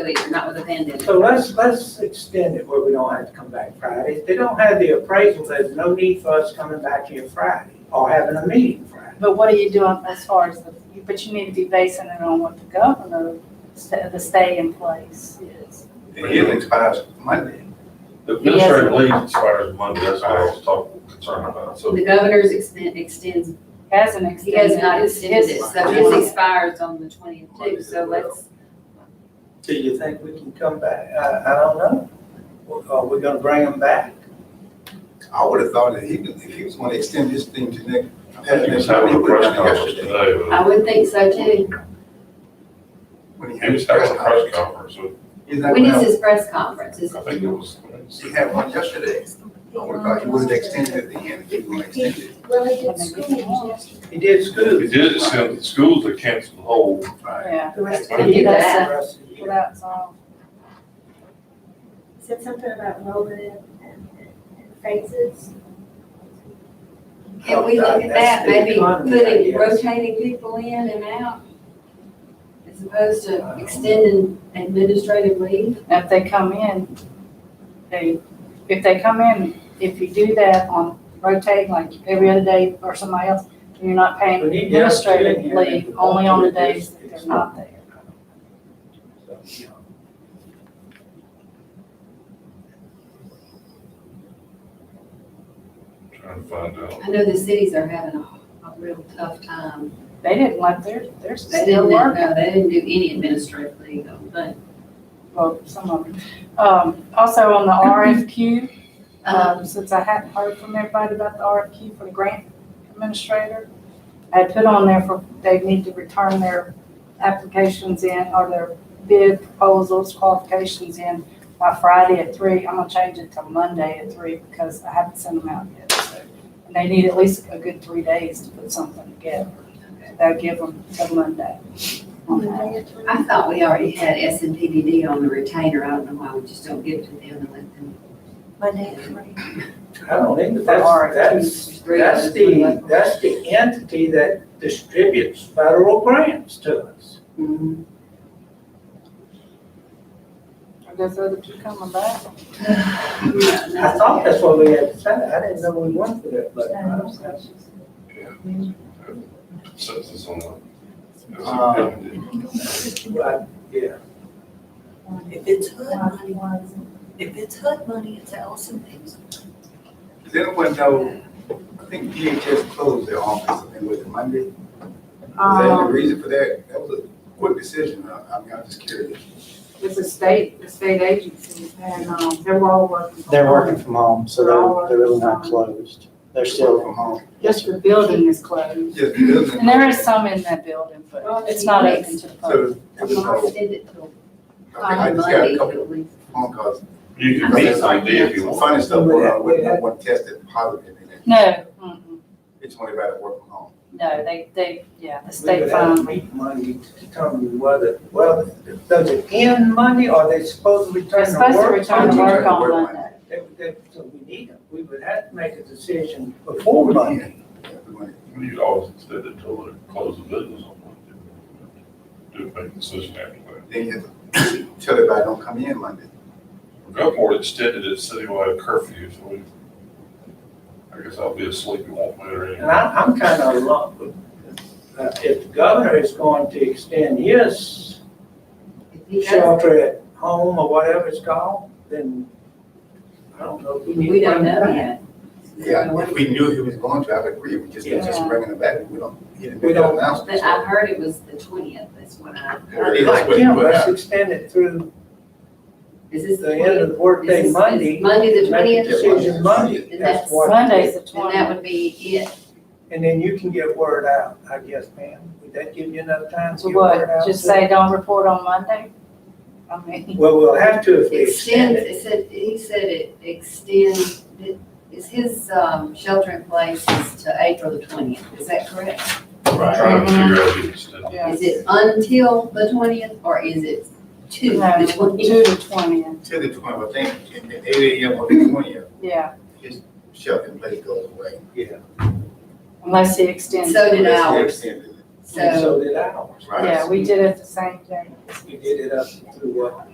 COVID, not with a pandemic. So let's, let's extend it where we don't have to come back Friday. If they don't have the appraisal, there's no need for us coming back here Friday or having a meeting Friday. But what are you doing as far as the, you- but you need to be basing it on what the governor, sta- the stay in place is. And his expires Monday. The administrative leave expires Monday, that's what I was talking, concerned about, so. The governor's extend- extends, Hasn't extended. he has not his- extended it, his- so his expires on the twentieth too, so let's, Do you think we can come back? I, I don't know. Are we gonna bring them back? I would have thought that he could, if he was gonna extend this thing to next. I think he was having a press conference today, I but would think so too. When he he had was his press having a press conference. conference, so He's not When gonna is have- his press conference? Is I it think it was. He had one yesterday. I would have thought he would have extended it at the end if he was gonna extend it. Well, they When did they school get halls. He did school. They did it, so the schools are canceled the whole, Yeah, The rest of Right. it He did that. the rest of the well, year. that's all. said something about Roman and and phases. Can we look at that, That's the maybe economy, putting, I guess. rotating people in and out? As opposed to extending administrative leave? Now, if they come in, they, if they come in, if you do that on rotating, like every other day or somebody else, you're not paying We need to have two in administrative here that leave, can only on the do this. days that they're not there. So, you know. trying to find out. I know the cities are having a, a real tough time. They didn't let their, They they're didn't, still working. no, they didn't do any administrative leave, though, but, well, some of them. Um, also on the RFQ, um, since I hadn't heard from everybody about the RFQ for the grant administrator, I had put on there for, they need to return their applications in, or their bid proposals, qualifications in by Friday at three. I'm gonna change it to Monday at three because I haven't sent them out yet, so. And they need at least a good three days to put something together. They'll give them till Monday. on that. Monday at 20. I thought we already had S and P D D on the retainer. I don't know why we just don't give it to them and let them. Monday at three. I don't think For that's, that's, There's three of that's us, we the, left. that's the entity that distributes federal grants to us. Mhm. Are those other two coming back? I thought that's what we had decided. I didn't know we went for that, but uh, I don't know. Consensus on that. Um, But, yeah, If it's HUD money, One. if it's HUD money, it's Allison Pink's. Does anyone know, I think DHS closed their office, I think, was it Monday? Was that the Um, reason for that? That was a quick decision. I, I mean, I'm just curious. It's a state, the state agency, and, um, they're all working. from They're home. working from home, so they're, they're really not closed. They're Work still, From home. Just the building is closed. Just building. And there is some in that building, but it's not open to the public. So, it was, I'll no- send it till I think I just got Monday, a couple at least. phone calls. You can meet somebody if you Some want. Funny stuff, uh, where I went, I went tested positive, and then No, mm-mm, it's only about to work from home. no, they, they, yeah, the we state would have to found. meet Monday to determine whether, well, does it end Monday or they supposed to They're return to work? supposed to return to work on Monday. Monday. They- they- So we need them. We would have to make a decision before Monday. Yeah, we went- You'd always extend it till they close the business on Monday. Do make a decision after that. Then you have to tell everybody don't come in Monday. Gulfport extended its citywide curfew, so we, I guess I'll be asleep, it won't matter anyway. And I, I'm kind of along with, uh, if the governor is going to extend his If he does, shelter at home or whatever it's called, then I don't know. if need to we don't bring it know back. yet. Yeah, if we knew he was going to, I would agree, we just, Yeah. just bringing it back, we don't, he didn't We make that don't- announcement. But I heard it was the twentieth, that's what I, There it is, Like what- Jim, what let's happened. extend it through is this the the end of twentieth? the workday Monday, Monday the twentieth, make a decision Monday, And that's that's what. Monday's the and that twentieth. would be it. And then you can get word out, I guess, ma'am. Would that give you enough time to So get word what, out? just say don't report on Monday? I mean, Well, we'll have to if we extend Extends, it. it said, he said it extends, it- is his, um, shelter in place is to April the twentieth, is that correct? I'm Trying to figure out if it's still. yeah, Is it until the twentieth, or is it to no, the two twentieth? to twentieth, Till the twenty, I think, and then eight AM or the twentieth, yeah, shelter in place goes away. unless he extends. So did it. I. That's the hours. extent of it, And So. so did ours. right? Yeah, we did it the same day. We did it up through what?